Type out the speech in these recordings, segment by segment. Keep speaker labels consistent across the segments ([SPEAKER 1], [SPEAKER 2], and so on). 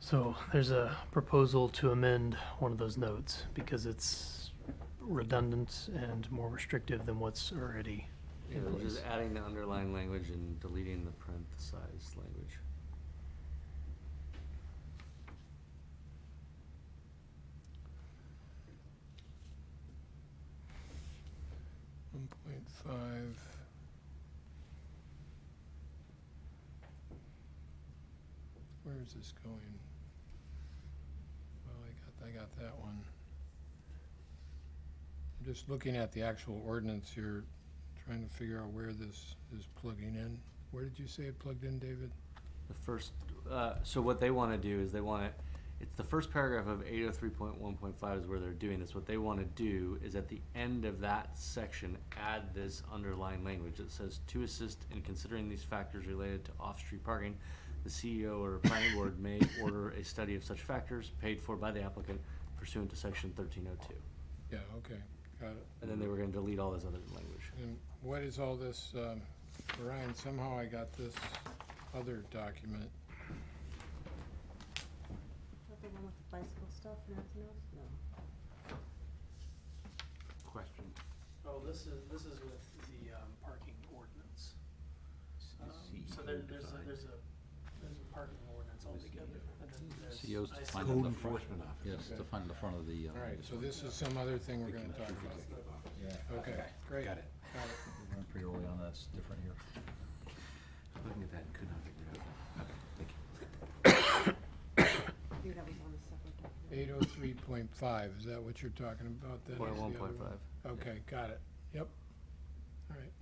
[SPEAKER 1] So there's a proposal to amend one of those notes because it's redundant and more restrictive than what's already
[SPEAKER 2] Yeah,
[SPEAKER 1] in
[SPEAKER 2] we're
[SPEAKER 1] place.
[SPEAKER 2] just adding the underlying language and deleting the parenthesized language.
[SPEAKER 3] One point five. Where is this going? Well, I got, I got that one. I'm just looking at the actual ordinance here, trying to figure out where this is plugging in. Where did you say it plugged in, David?
[SPEAKER 2] The first, uh, so what they wanna do is they wanna, it's the first paragraph of eight oh three point one point five is where they're doing this. What they wanna do is at the end of that section, add this underlying language that says, to assist in considering these factors related to off-street parking, the CEO or planning board may order a study of such factors paid for by the applicant pursuant to section thirteen oh two.
[SPEAKER 3] Yeah, okay, got it.
[SPEAKER 2] And then they were gonna delete all this other language.
[SPEAKER 3] And what is all this, um, Ryan, somehow I got this other document.
[SPEAKER 4] Not the one with the bicycle stuff and everything else? No.
[SPEAKER 2] Question.
[SPEAKER 1] Oh, this is, this is with the um, parking ordinance. Um,
[SPEAKER 2] E
[SPEAKER 1] So there, there's a, there's a, there's a parking ordinance altogether.
[SPEAKER 5] CEO's to find
[SPEAKER 1] Code
[SPEAKER 5] the front. Yes,
[SPEAKER 3] Okay.
[SPEAKER 5] to find the front of the. uh,
[SPEAKER 3] All right,
[SPEAKER 5] this
[SPEAKER 3] so
[SPEAKER 5] one.
[SPEAKER 3] this is some other thing we're gonna talk about.
[SPEAKER 5] Yeah.
[SPEAKER 3] Okay, great.
[SPEAKER 5] Got it.
[SPEAKER 3] Got it.
[SPEAKER 5] We went pretty early on, that's different here. Looking at that and could not figure it out. Okay, thank you.
[SPEAKER 4] I think that was on a separate document.
[SPEAKER 3] Eight oh three point five, is that what you're talking about then?
[SPEAKER 2] Point
[SPEAKER 3] Is the
[SPEAKER 2] one,
[SPEAKER 3] other
[SPEAKER 2] point
[SPEAKER 3] one?
[SPEAKER 2] five.
[SPEAKER 3] Okay, got it, yep. All right.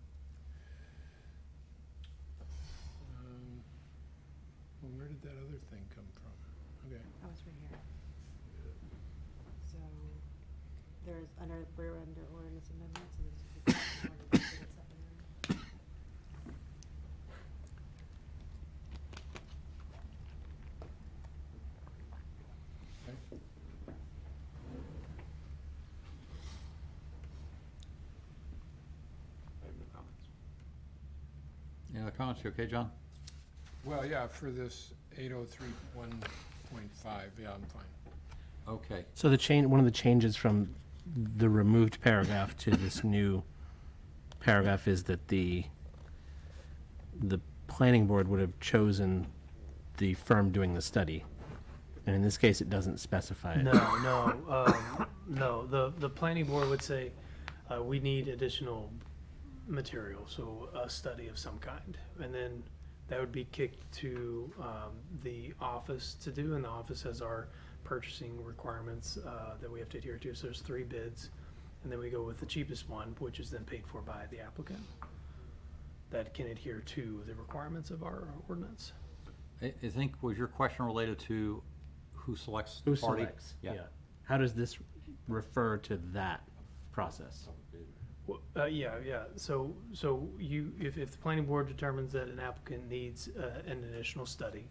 [SPEAKER 3] Um, Well, where did that other thing come from? Okay,
[SPEAKER 4] That was right here. So, there's under, we're under ordinance amendments and there's. a ordinance that's up and running.
[SPEAKER 3] okay.
[SPEAKER 2] I have no comments.
[SPEAKER 5] Any other comments? You okay, John?
[SPEAKER 3] Well, yeah, for this eight oh three one point five, yeah, I'm fine.
[SPEAKER 5] Okay,
[SPEAKER 6] So the change, one of the changes from the removed paragraph to this new paragraph is that the, the planning board would have chosen the firm doing the study. And in this case, it doesn't specify it.
[SPEAKER 1] No, no, um, no, the, the planning board would say, uh, we need additional material, so a study of some kind. And then that would be kicked to, um, the office to do, and the office has our purchasing requirements, uh, that we have to adhere to, so there's three bids. And then we go with the cheapest one, which is then paid for by the applicant. That can adhere to the requirements of our ordinance.
[SPEAKER 5] I, I think, was your question related to who selects the
[SPEAKER 6] Who
[SPEAKER 5] party?
[SPEAKER 6] selects? How does this refer to that process?
[SPEAKER 1] Well, Uh, yeah, yeah, so, so you, if, if the planning board determines that an applicant needs, uh, an additional study,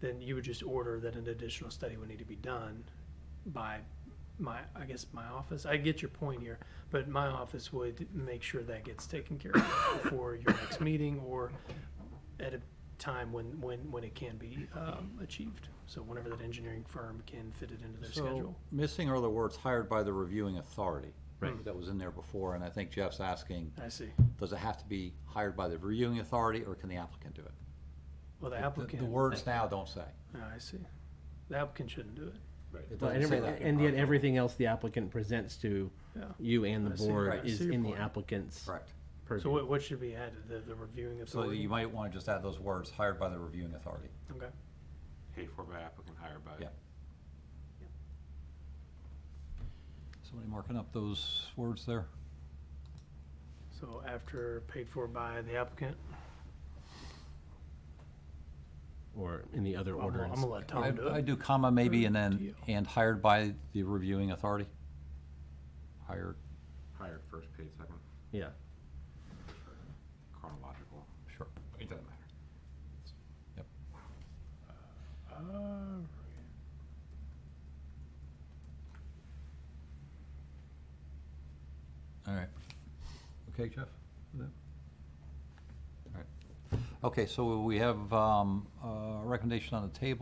[SPEAKER 1] then you would just order that an additional study would need to be done by my, I guess, my office, I get your point here, but my office would make sure that gets taken care of before your next meeting, or at a time when, when, when it can be, um, achieved, so whenever that engineering firm can fit it into their
[SPEAKER 5] So,
[SPEAKER 1] schedule.
[SPEAKER 5] missing are the words hired by the reviewing authority.
[SPEAKER 1] Right.
[SPEAKER 5] That was in there before, and I think Jeff's asking,
[SPEAKER 1] I see,
[SPEAKER 5] does it have to be hired by the reviewing authority, or can the applicant do it?
[SPEAKER 1] well, the
[SPEAKER 5] The-
[SPEAKER 1] applicant.
[SPEAKER 5] The words now don't say.
[SPEAKER 1] Yeah, Ah, I see, the applicant shouldn't do it.
[SPEAKER 5] It
[SPEAKER 6] Well,
[SPEAKER 5] doesn't
[SPEAKER 6] And
[SPEAKER 5] say
[SPEAKER 6] every-
[SPEAKER 5] that.
[SPEAKER 6] and yet everything else the applicant presents to
[SPEAKER 1] Yeah.
[SPEAKER 6] you and the
[SPEAKER 1] I see.
[SPEAKER 6] board
[SPEAKER 1] Right.
[SPEAKER 6] is
[SPEAKER 1] I see
[SPEAKER 6] in
[SPEAKER 1] your
[SPEAKER 6] the
[SPEAKER 1] point.
[SPEAKER 6] applicant's
[SPEAKER 5] Correct.
[SPEAKER 6] purview.
[SPEAKER 1] So what, what should be added, the, the reviewing
[SPEAKER 5] So
[SPEAKER 1] authority?
[SPEAKER 5] you might want to just add those words, hired by the reviewing authority.
[SPEAKER 1] Okay,
[SPEAKER 7] paid for by applicant, hired by.
[SPEAKER 5] Yeah. Somebody marking up those words there?
[SPEAKER 1] so after paid for by the applicant,
[SPEAKER 6] Or in the other
[SPEAKER 1] I'm gonna- I'm
[SPEAKER 6] ordinance.
[SPEAKER 1] gonna let Tom
[SPEAKER 5] I'd
[SPEAKER 1] do
[SPEAKER 5] I'd
[SPEAKER 1] it.
[SPEAKER 5] do comma maybe and then,
[SPEAKER 1] Deal.
[SPEAKER 5] and hired by the reviewing authority. Hired,
[SPEAKER 7] Hired first, paid second,
[SPEAKER 6] Yeah.
[SPEAKER 7] chronological,
[SPEAKER 5] sure.
[SPEAKER 7] it doesn't matter.
[SPEAKER 1] Ah.
[SPEAKER 5] All right. Okay, Jeff? with that? All right. Okay, so we have um, a recommendation on the table.